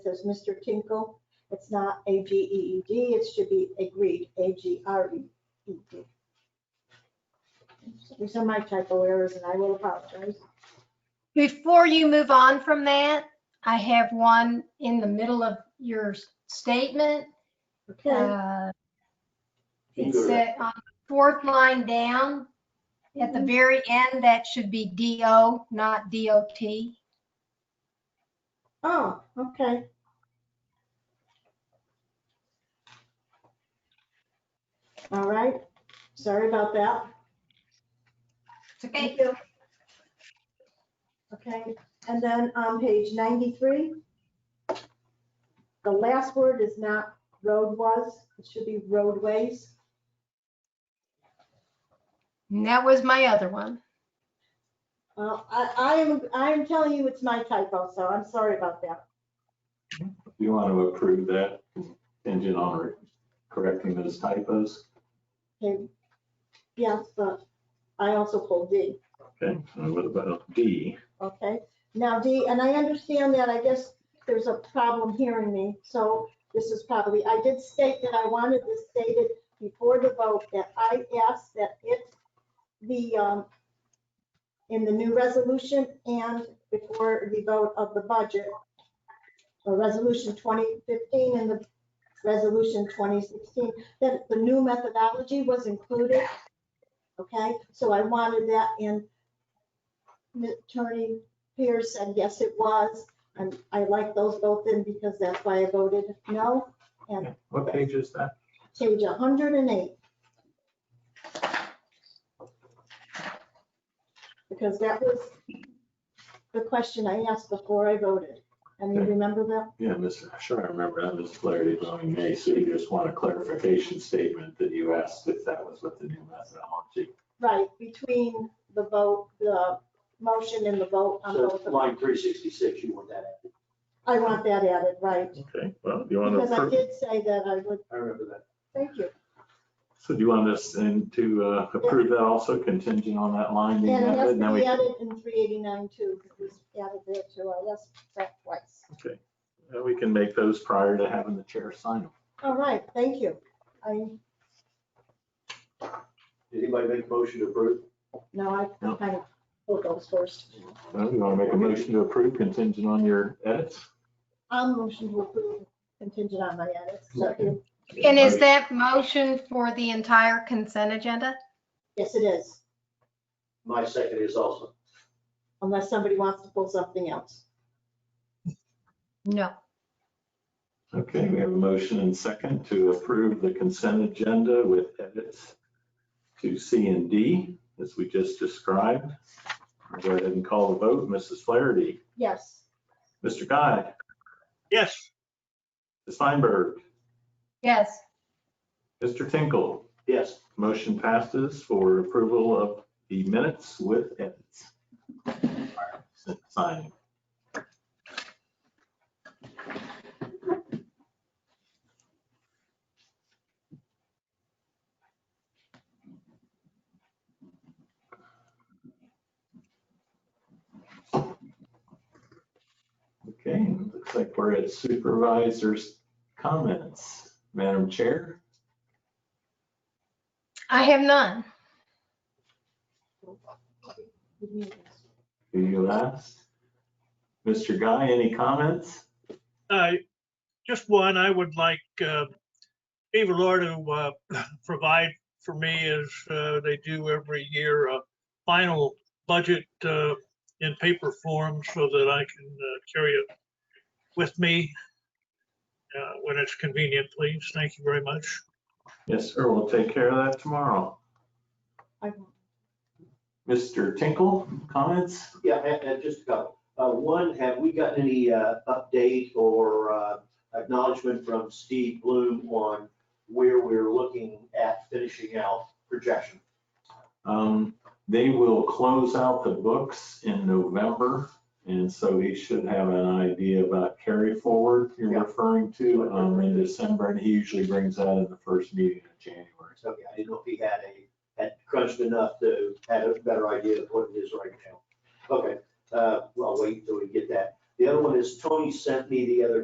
says Mr. Tinkle. It's not A G E E D, it should be agreed, A G R E E D. These are my typo errors and I will apologize. Before you move on from that, I have one in the middle of your statement. Okay, Uh, You It go to- said on the fourth line down, at the very end, that should be DO, not DOT. oh, okay. All right, sorry about that. It's okay. you. Okay, and then on page 93, the last word is not road was, it should be roadways. And that was my other one. Well, I, I am, I am telling you it's my typo, so I'm sorry about that. Do you want to approve that contingent on correcting those typos? Okay. Yes, but I also pulled D, Okay, and what about D? okay? Now D, and I understand that, I guess there's a problem hearing me, so this is probably, I did state that I wanted this stated before the vote, that I asked that it, the, um, in the new resolution and before the vote of the budget, or resolution 2015 and the resolution 2016, that the new methodology was included. Okay, so I wanted that in. Attorney Pierce said, yes, it was. And I like those both in because that's why I voted no. And What page is that? page 108. Because that was the question I asked before I voted. And you remember that? Yeah, Mr. Sure, I remember that, Ms. Flaherty, voting nay, so you just want a clarification statement that you asked if that was what the new methodology. Right, between the vote, the motion and the vote on So both. of them. line three sixty-six, you want that added. I want that added, right? Okay, well, do you want to Because I approve? did say that I would, I remember that. thank you. So do you want us then to uh, approve that also contingent on that line? And being it has added? to Now we be added in 389 too, because we added there too. I asked that twice. Okay, Uh, we can make those prior to having the chair sign them. All right, thank you. I, Anybody make a motion to approve? no, I No. kind of pulled those first. Well, you want to make a motion to approve contingent on your edits? I'm motion to approve contingent on my edits. Second. And is that motion for the entire consent agenda? Yes, it is, My second is also. unless somebody wants to pull something else. No. Okay, we have a motion and second to approve the consent agenda with edits to C and D, as we just described. I'll Go ahead and call the vote. Mrs. Flaherty, Yes, Mr. Guy, Yes. Ms. Feinberg, Yes. Mr. Tinkle. Yes, Motion passes for approval of the minutes with edits. Signing. Okay, and looks like we're at supervisors' comments. Madam Chair? I have none. Do you last? Mr. Guy, any comments? Uh, Just one, I would like uh, Eva Lore to uh, provide for me, as uh, they do every year, a final budget uh, in paper form so that I can uh, carry it with me uh, when it's convenient, please. Thank you very much. Yes, sir, we'll take care of that tomorrow. I- Mr. Tinkle, comments? yeah, and, and just a couple. Uh, one, have we gotten any, uh, update or, uh, acknowledgement from Steve Bloom on where we're looking at finishing out projection? Um, They will close out the books in November, and so he should have an idea about carry forward you're Yeah. referring to um, in December, and he usually brings that in the first meeting in January. Okay, I didn't know if he had a, had crunched enough to had a better idea of what it is right now. Okay, uh, well, I'll wait until we get that. The other one is Tony sent me the other